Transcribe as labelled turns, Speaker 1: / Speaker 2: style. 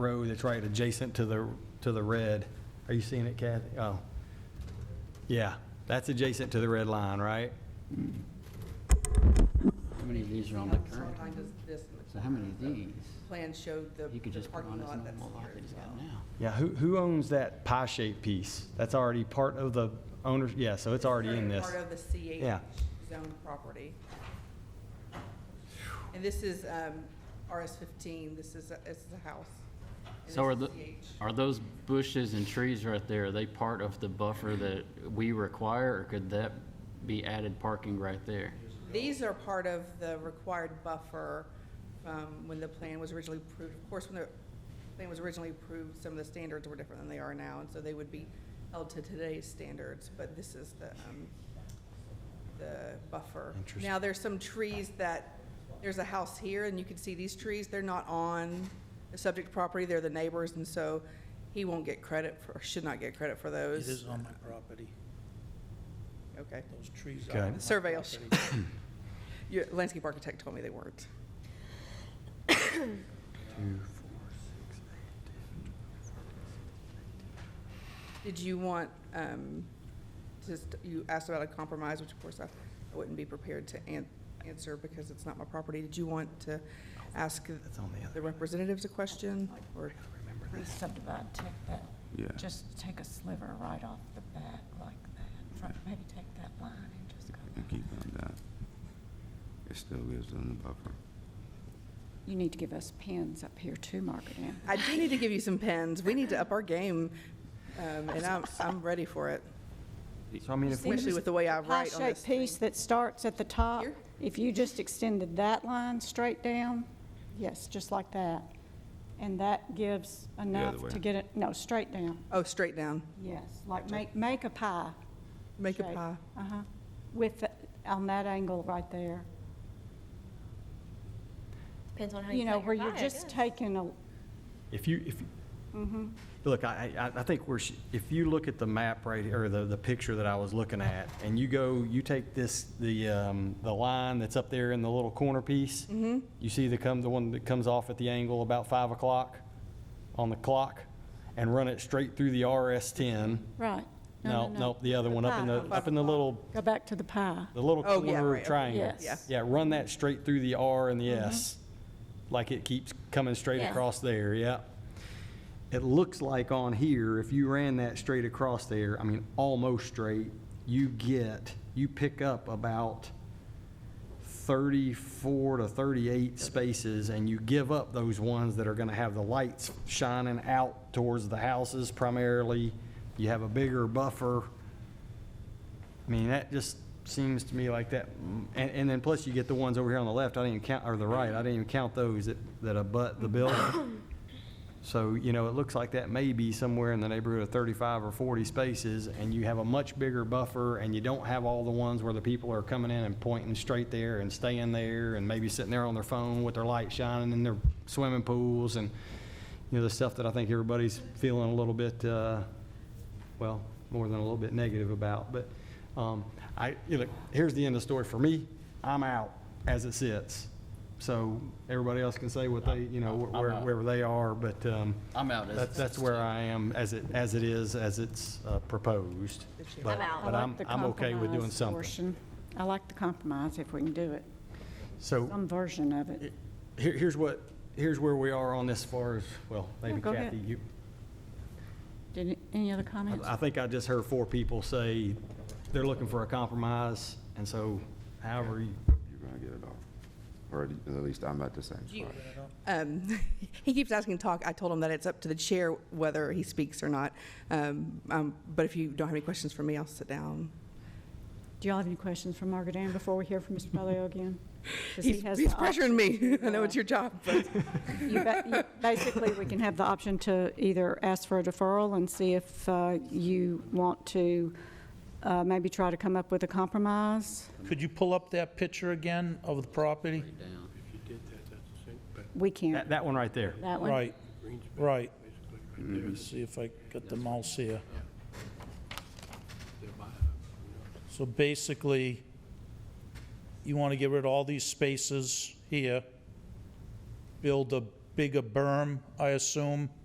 Speaker 1: row that's right adjacent to the, to the red. Are you seeing it, Kathy? Oh. Yeah, that's adjacent to the red line, right?
Speaker 2: How many of these are on the current?
Speaker 3: Sometimes it's this and
Speaker 2: So how many of these?
Speaker 3: plan showed the
Speaker 2: You could
Speaker 3: the
Speaker 2: just put on
Speaker 3: parking
Speaker 2: as
Speaker 3: lot that's
Speaker 2: normal lot
Speaker 3: here
Speaker 2: that
Speaker 3: as
Speaker 2: he's got
Speaker 3: well.
Speaker 2: now.
Speaker 1: Yeah, who, who owns that pie-shaped piece? That's already part of the owner's, yeah, so it's already in this.
Speaker 3: Part of the C8
Speaker 1: Yeah.
Speaker 3: zone property. And this is um, RS15, this is, a- this is a house. and
Speaker 2: So are
Speaker 3: this
Speaker 2: the,
Speaker 3: is CH.
Speaker 2: are those bushes and trees right there, are they part of the buffer that we require, or could that be added parking right there?
Speaker 3: These are part of the required buffer um, when the plan was originally approved. Of course, when the plan was originally approved, some of the standards were different than they are now, and so they would be held to today's standards, but this is the, um, the buffer.
Speaker 1: Interesting.
Speaker 3: Now, there's some trees that, there's a house here, and you can see these trees, they're not on the subject property, they're the neighbors, and so he won't get credit for, or should not get credit for
Speaker 4: It
Speaker 3: those.
Speaker 4: is on my property.
Speaker 3: Okay.
Speaker 4: Those trees
Speaker 1: Okay.
Speaker 4: are on my
Speaker 3: Survey will sh-
Speaker 4: property.
Speaker 3: Your landscape architect told me they weren't. Did you want, um, just, you asked about a compromise, which of course I I wouldn't be prepared to an- answer because it's not my property. Did you want to ask
Speaker 1: That's on the other.
Speaker 3: the representatives a question? Or,
Speaker 5: re-subdivide, take that,
Speaker 6: Yeah.
Speaker 5: just take a sliver right off the back like that, Try- maybe take that line and just go.
Speaker 6: And keep on that. It still gives them the buffer.
Speaker 7: You need to give us pins up here too, Margaret Ann.
Speaker 3: I do need to give you some pens. We need to up our game, um, and I'm, I'm ready for it,
Speaker 1: So I mean, if we,
Speaker 3: especially with the way I write on this
Speaker 8: Pie-shaped
Speaker 3: thing.
Speaker 8: piece that starts at the top,
Speaker 3: Here?
Speaker 8: if you just extended that line straight down, yes, just like that. And that gives enough
Speaker 6: way.
Speaker 8: to get it, no, straight down,
Speaker 3: Oh, straight down.
Speaker 8: yes, like make, make a pie.
Speaker 3: Make a
Speaker 8: shape.
Speaker 3: pie.
Speaker 8: Uh-huh, with, the- on that angle right there.
Speaker 9: Depends on how you,
Speaker 8: You know,
Speaker 9: cut your
Speaker 8: where you're
Speaker 9: pie, I
Speaker 8: just
Speaker 9: guess.
Speaker 8: taking a,
Speaker 1: if you, if, Mm-hmm. look, I, I, I think we're, sh- if you look at the map right, or the, the picture that I was looking at, and you go, you take this, the, um, the line that's up there in the little corner piece. You see the come, the one that comes off at the angle about five o'clock on the clock, and run it straight through the RS ten.
Speaker 8: right.
Speaker 1: No, no, the other one up in the, up in the little,
Speaker 8: Go back to the pie.
Speaker 1: the little
Speaker 3: Oh, yeah,
Speaker 1: corner
Speaker 3: right, okay,
Speaker 1: triangle.
Speaker 8: yes.
Speaker 3: Yeah.
Speaker 1: Yeah, run that straight through the R and the S, like it keeps coming straight
Speaker 9: Yeah.
Speaker 1: across there, yeah. It looks like on here, if you ran that straight across there, I mean, almost straight, you get, you pick up about 34 to 38 spaces, and you give up those ones that are going to have the lights shining out towards the houses primarily. You have a bigger buffer. I mean, that just seems to me like that, mm, and, and then plus you get the ones over here on the left, I didn't even count, or the right, I didn't even count those that, that abut the building. So, you know, it looks like that may be somewhere in the neighborhood of 35 or 40 spaces, and you have a much bigger buffer, and you don't have all the ones where the people are coming in and pointing straight there and staying there, and maybe sitting there on their phone with their light shining in their swimming pools, and, you know, the stuff that I think everybody's feeling a little bit, uh, well, more than a little bit negative about. But um, I, you know, here's the end of the story for me. I'm out as it sits. So everybody else can say what they, you know,
Speaker 2: I'm
Speaker 1: where-
Speaker 2: out.
Speaker 1: wherever they are, but um,
Speaker 2: I'm out as
Speaker 1: that-
Speaker 2: it
Speaker 1: That's
Speaker 2: sits,
Speaker 1: where
Speaker 2: too.
Speaker 1: I am, as it, as it is, as it's uh, proposed. But-
Speaker 9: I'm out.
Speaker 8: I
Speaker 1: But
Speaker 8: like
Speaker 1: I'm,
Speaker 8: the
Speaker 1: I'm okay with doing
Speaker 8: compromise
Speaker 1: something.
Speaker 8: portion. I like the compromise if we can do it,
Speaker 1: So
Speaker 8: some version of it.
Speaker 1: here- here's what, here's where we are on this far as, well, maybe
Speaker 8: go ahead.
Speaker 1: Kathy, you,
Speaker 8: Did, any other comments?
Speaker 1: I think I just heard four people say they're looking for a compromise, and so however you,
Speaker 6: You're gonna get it all. Or at least I'm at the same
Speaker 3: Do you-
Speaker 6: spot.
Speaker 3: Um, He keeps asking to talk. I told him that it's up to the chair whether he speaks or not. Um, um, But if you don't have any questions for me, I'll sit down.
Speaker 8: Do y'all have any questions for Margaret Ann before we hear from Mr. Bellio again? 'Cause he
Speaker 3: He's
Speaker 8: has
Speaker 3: he's
Speaker 8: the option
Speaker 3: pressuring me.
Speaker 8: to,
Speaker 3: I know
Speaker 8: uh,
Speaker 3: it's your job, but
Speaker 8: you ba- you- Basically, we can have the option to either ask for a deferral and see if uh, you want to uh, maybe try to come up with a compromise.
Speaker 4: Could you pull up that picture again of the property?
Speaker 8: We can't,
Speaker 1: that, that one right there.
Speaker 8: that one.
Speaker 4: Right, right. Let me see if I got the mouse here. So basically, you want to get rid of all these spaces here, build a big a berm, I assume?